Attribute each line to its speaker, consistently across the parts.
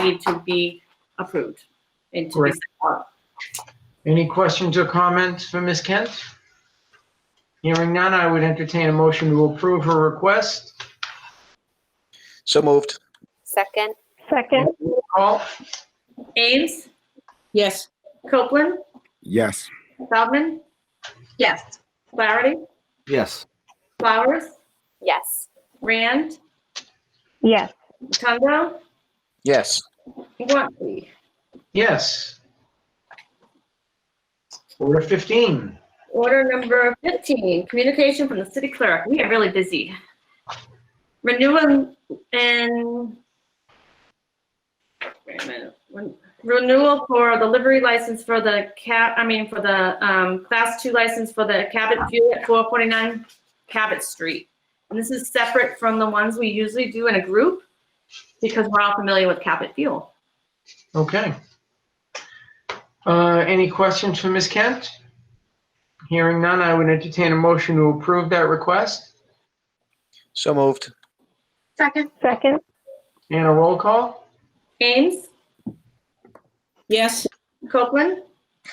Speaker 1: need to be approved and to be
Speaker 2: Correct.
Speaker 1: sent out.
Speaker 2: Any questions or comments for Ms. Kent? Hearing none, I would entertain a motion to approve her request.
Speaker 3: So moved.
Speaker 4: Second,
Speaker 5: Second,
Speaker 2: Call?
Speaker 1: Ames,
Speaker 6: yes,
Speaker 1: Copeland,
Speaker 7: Yes.
Speaker 1: Feldman,
Speaker 8: yes,
Speaker 1: Flaherty,
Speaker 7: Yes.
Speaker 1: Flowers,
Speaker 4: yes.
Speaker 1: Rand,
Speaker 5: yes,
Speaker 1: Rotundo,
Speaker 3: Yes.
Speaker 1: Guanxi.
Speaker 2: Yes. Order 15.
Speaker 1: Order number 15, communication from the city clerk. We are really busy. Renewal and wait a minute. Ren- renewal for the livery license for the cab, I mean, for the um, class two license for the Cabot View at 449 Cabot Street. And this is separate from the ones we usually do in a group because we're all familiar with Cabot Fuel.
Speaker 2: Okay. Uh, Any questions for Ms. Kent? Hearing none, I would entertain a motion to approve that request
Speaker 3: So moved.
Speaker 8: second,
Speaker 5: second,
Speaker 2: and a roll call.
Speaker 1: Ames,
Speaker 6: yes,
Speaker 1: Copeland,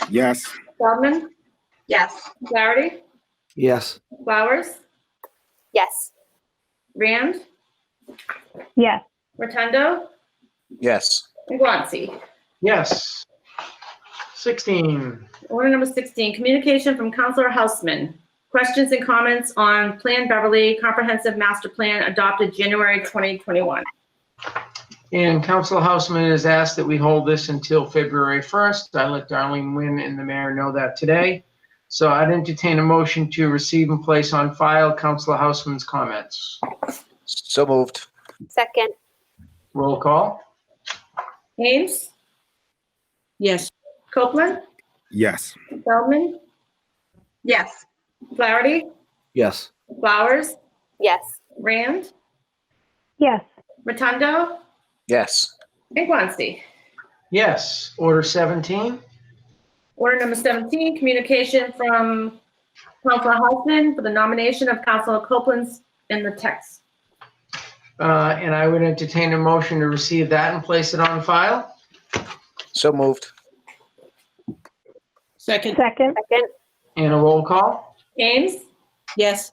Speaker 7: Yes.
Speaker 1: Feldman,
Speaker 8: yes,
Speaker 1: Flaherty,
Speaker 7: Yes.
Speaker 1: Flowers,
Speaker 4: Yes,
Speaker 1: Rand,
Speaker 5: yes,
Speaker 1: Rotundo,
Speaker 3: Yes.
Speaker 1: and Guanxi.
Speaker 2: Yes. 16.
Speaker 1: Order number 16, communication from Counselor Houseman. Questions and comments on Plan Beverly Comprehensive Master Plan adopted January 2021.
Speaker 2: And Council Houseman has asked that we hold this until February 1st. I let Darlene Wynn and the mayor know that today. So I'd entertain a motion to receive and place on file Council Houseman's comments.
Speaker 3: So moved.
Speaker 4: second,
Speaker 2: Roll call?
Speaker 1: Ames,
Speaker 6: yes,
Speaker 1: Copeland,
Speaker 7: Yes.
Speaker 1: Feldman,
Speaker 8: yes,
Speaker 1: Flaherty,
Speaker 7: Yes.
Speaker 1: Flowers,
Speaker 4: yes,
Speaker 1: Rand,
Speaker 5: yes,
Speaker 1: Rotundo,
Speaker 3: Yes.
Speaker 1: and Guanxi.
Speaker 2: Yes. Order 17?
Speaker 1: Order number 17, communication from Counselor Houseman for the nomination of Counselor Copeland's in the text.
Speaker 2: Uh, And I would entertain a motion to receive that and place it on file.
Speaker 3: So moved.
Speaker 6: second,
Speaker 5: second,
Speaker 4: second,
Speaker 2: And a roll call?
Speaker 1: Ames,
Speaker 6: yes,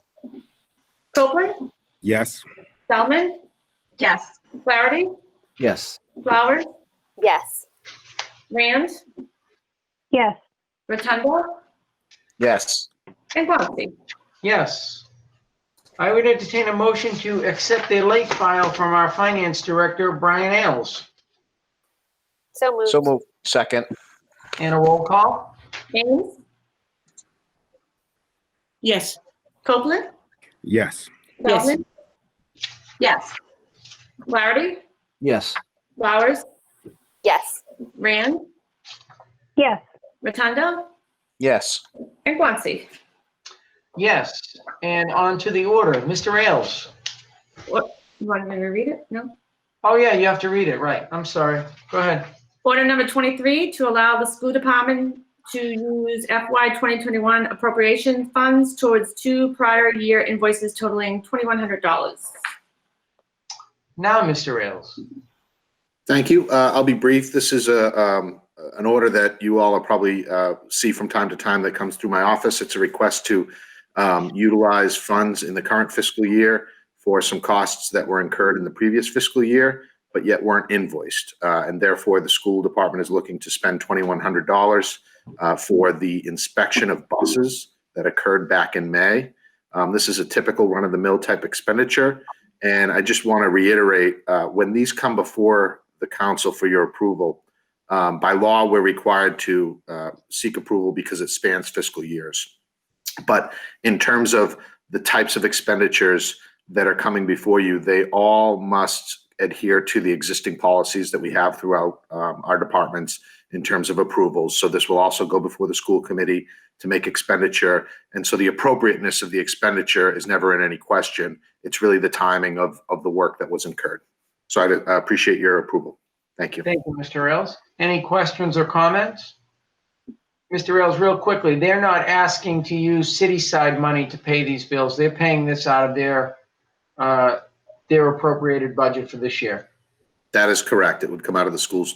Speaker 1: Copeland,
Speaker 7: Yes.
Speaker 1: Feldman,
Speaker 8: yes,
Speaker 1: Flaherty,
Speaker 7: Yes.
Speaker 1: Flowers,
Speaker 4: yes,
Speaker 1: Rand,
Speaker 5: yes,
Speaker 1: Rotundo,
Speaker 3: Yes.
Speaker 1: and Guanxi.
Speaker 2: Yes. I would entertain a motion to accept a late file from our Finance Director, Brian Ailes.
Speaker 4: so moved,
Speaker 3: So moved. Second.
Speaker 2: And a roll call?
Speaker 1: Ames,
Speaker 6: yes,
Speaker 1: Copeland,
Speaker 7: Yes.
Speaker 6: Yes.
Speaker 1: Feldman,
Speaker 8: yes,
Speaker 1: Flaherty,
Speaker 7: Yes.
Speaker 1: Flowers,
Speaker 4: yes,
Speaker 1: Rand,
Speaker 5: yes,
Speaker 1: Rotundo,
Speaker 3: Yes.
Speaker 1: and Guanxi.
Speaker 2: Yes, and on to the order. Mr. Ailes.
Speaker 1: You want me to read it? No?
Speaker 2: Oh, yeah, you have to read it, right. I'm sorry. Go ahead.
Speaker 1: Order number 23, to allow the school department to use FY 2021 appropriation funds towards two prior year invoices totaling $2,100.
Speaker 2: Now, Mr. Ailes.
Speaker 9: Thank you. Uh, I'll be brief. This is a, um, an order that you all are probably, uh, see from time to time that comes through my office. It's a request to, um, utilize funds in the current fiscal year for some costs that were incurred in the previous fiscal year, but yet weren't invoiced. Uh, and therefore, the school department is looking to spend twenty-one hundred dollars, uh, for the inspection of buses that occurred back in May. Um, this is a typical run-of-the-mill type expenditure. And I just want to reiterate, uh, when these come before the council for your approval, um, by law, we're required to uh, seek approval because it spans fiscal years. But in terms of the types of expenditures that are coming before you, they all must adhere to the existing policies that we have throughout um, our departments in terms of approvals. So this will also go before the school committee to make expenditure. And so the appropriateness of the expenditure is never in any question it's really the timing of, of the work that was incurred. So I uh, appreciate your approval. Thank you.
Speaker 2: Thank you, Mr. Ailes. Any questions or comments? Mr. Ailes, real quickly, they're not asking to use city-side money to pay these bills. They're paying this out of their, uh, their appropriated budget for this year.
Speaker 9: That is correct. It would come out of the school's